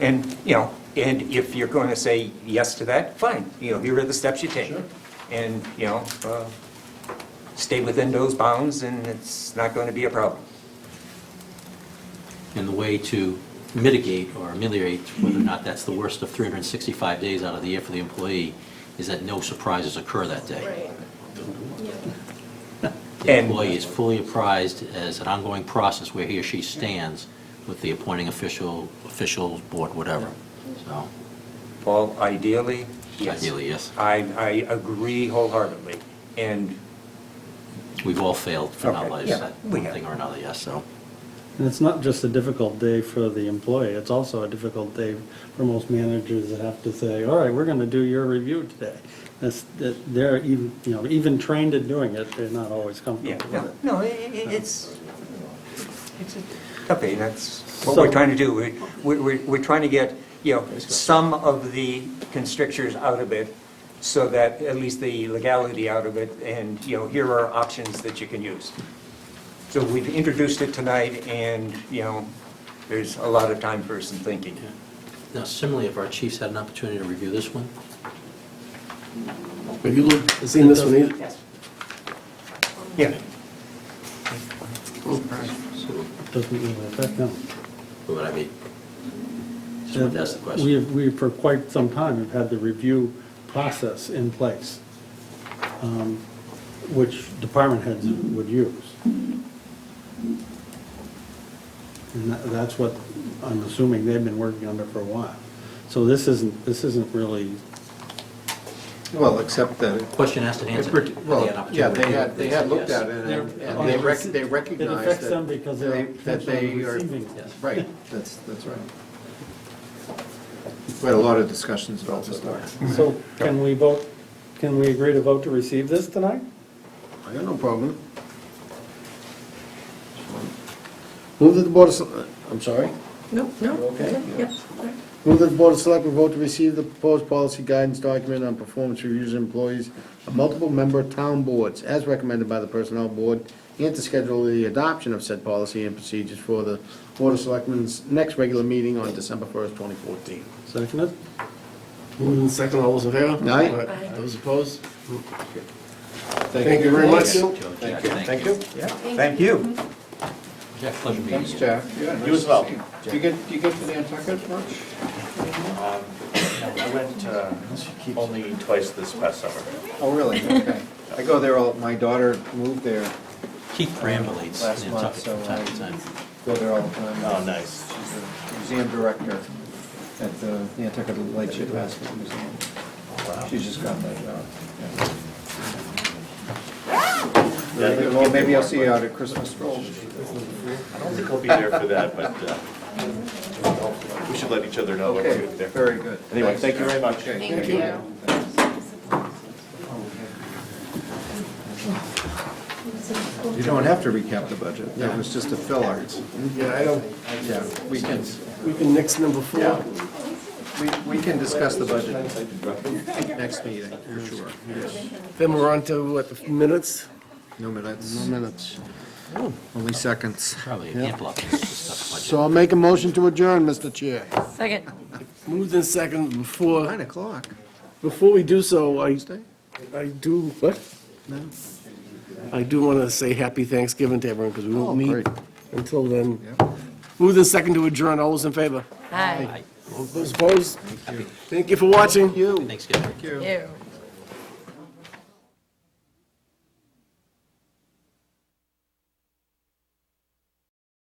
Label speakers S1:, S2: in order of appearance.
S1: And, you know, and if you're going to say yes to that, fine, you know, here are the steps you take.
S2: Sure.
S1: And, you know, uh, stay within those bounds, and it's not going to be a problem.
S3: And the way to mitigate or ameliorate whether or not that's the worst of 365 days out of the year for the employee is that no surprises occur that day.
S4: Right. Yeah.
S3: The
S1: And-
S3: employee is fully apprised as an ongoing process where he or she stands with the appointing official, officials, board, whatever. So,
S1: Paul, ideally, yes.
S3: Ideally, yes.
S1: I, I agree wholeheartedly, and
S3: we've all failed for our
S1: Okay,
S3: lives
S1: yeah,
S3: at
S1: we
S3: one
S1: have.
S3: thing or another, yes, so.
S2: And it's not just a difficult day for the employee, it's also a difficult day for most managers that have to say, all right, we're gonna do your review today. That's, that, they're even, you know, even trained at doing it, they're not always
S1: Yeah,
S2: comfortable
S1: no,
S2: with it.
S1: no, i- i- it's, it's a tough day, that's what we're
S2: So-
S1: trying to do. We- we- we- We're trying to get, you know, some of the constrictures out of it, so that, at least the legality out of it, and, you know, here are options that you can use. So we've introduced it tonight, and, you know, there's a lot of time for some thinking.
S3: Now similarly, if our chiefs had an opportunity to review this one,
S5: Have you looked, seen this one either?
S1: Yes. Yeah,
S3: so
S2: Doesn't really affect them.
S3: what would I be? Just wanted to ask
S6: Uh,
S3: the question.
S2: We have, we, for quite some time, have had the review process in place, um, which department heads would use. And that, that's what, I'm assuming they've been working under for a while. So this isn't, this isn't really,
S6: Well, except that,
S3: Question asked and
S6: it-
S3: answered. Had
S6: it-
S3: they an
S6: well, yeah,
S3: opportunity to
S6: they
S3: review
S6: had, they had
S3: said
S6: looked
S3: yes.
S6: at it, and
S2: They're-
S6: and they rec- they recognized that.
S2: It affects them because they're
S6: they- that
S2: potentially
S6: they are-
S2: receiving it.
S3: Yes.
S6: Right, that's, that's right. We had a lot of discussions about this stuff.
S2: so can we vote, can we agree to vote to receive this tonight?
S6: I got no problem. Move that the Board of, Sel- I'm sorry?
S4: No, no.
S6: Okay.
S4: Yep, right.
S6: Move that the Board of Selectmen vote to receive the proposed policy guidance document on performance reviews of employees of multiple member town boards as recommended by the Personnel Board and to schedule the adoption of said policy and procedures for the Board of Selectmen's next regular meeting on December first, twenty fourteen.
S2: Second it?
S7: Moving in second, all those in favor?
S6: Aye.
S4: Aye.
S7: Those opposed?
S6: Thank you very much.
S3: Joe, Jack, thank you.
S1: yeah, thank you.
S3: Jack, pleasure meeting
S6: Thanks,
S3: you.
S6: Jack.
S7: You as well.
S6: Do you get, do you get to Nantucket much?
S7: I went uh, only twice this past summer.
S6: Oh, really? Okay. I go there, all my daughter moved there, uh,
S3: Keith perambulates
S6: Last month,
S3: Nantucket from
S6: so uh,
S3: time
S6: I-
S3: to time.
S6: go there all the time.
S7: Oh, nice.
S6: She's the museum director at the Nantucket Lightship Basket Museum. She's just got that job.
S7: Yeah, I think
S6: Well, maybe I'll see you out at Christmas stroll.
S7: I don't think I'll be there for that, but uh, we should let each other know when
S6: Okay,
S7: we're there.
S6: very good.
S7: Anyway, thank you very much.
S6: Okay,
S4: Thank you.
S6: You don't have to recap the budget. That was just a filler.
S7: Yeah, I don't,
S6: Yeah, we can,
S7: we can next number four.
S6: we, we can discuss the budget next meeting, for sure.
S7: Then we're on to, what, the minutes?
S6: No minutes. No minutes. Only seconds.
S3: Probably a camp lot.
S6: So I'll make a motion to adjourn, Mr. Chair.
S4: Second.
S7: Moved in second, before,
S6: Nine o'clock.
S7: before we do so, I, I do, what?
S6: No.
S7: I do want to say happy Thanksgiving to everyone, because we
S6: Oh,
S7: won't meet
S6: great.
S7: until then.
S6: Yep.
S7: Moved in second to adjourn, all those in favor?
S4: Hi.
S7: All Those opposed? Thank you for watching.
S6: You.
S3: Thanksgiving.
S4: You.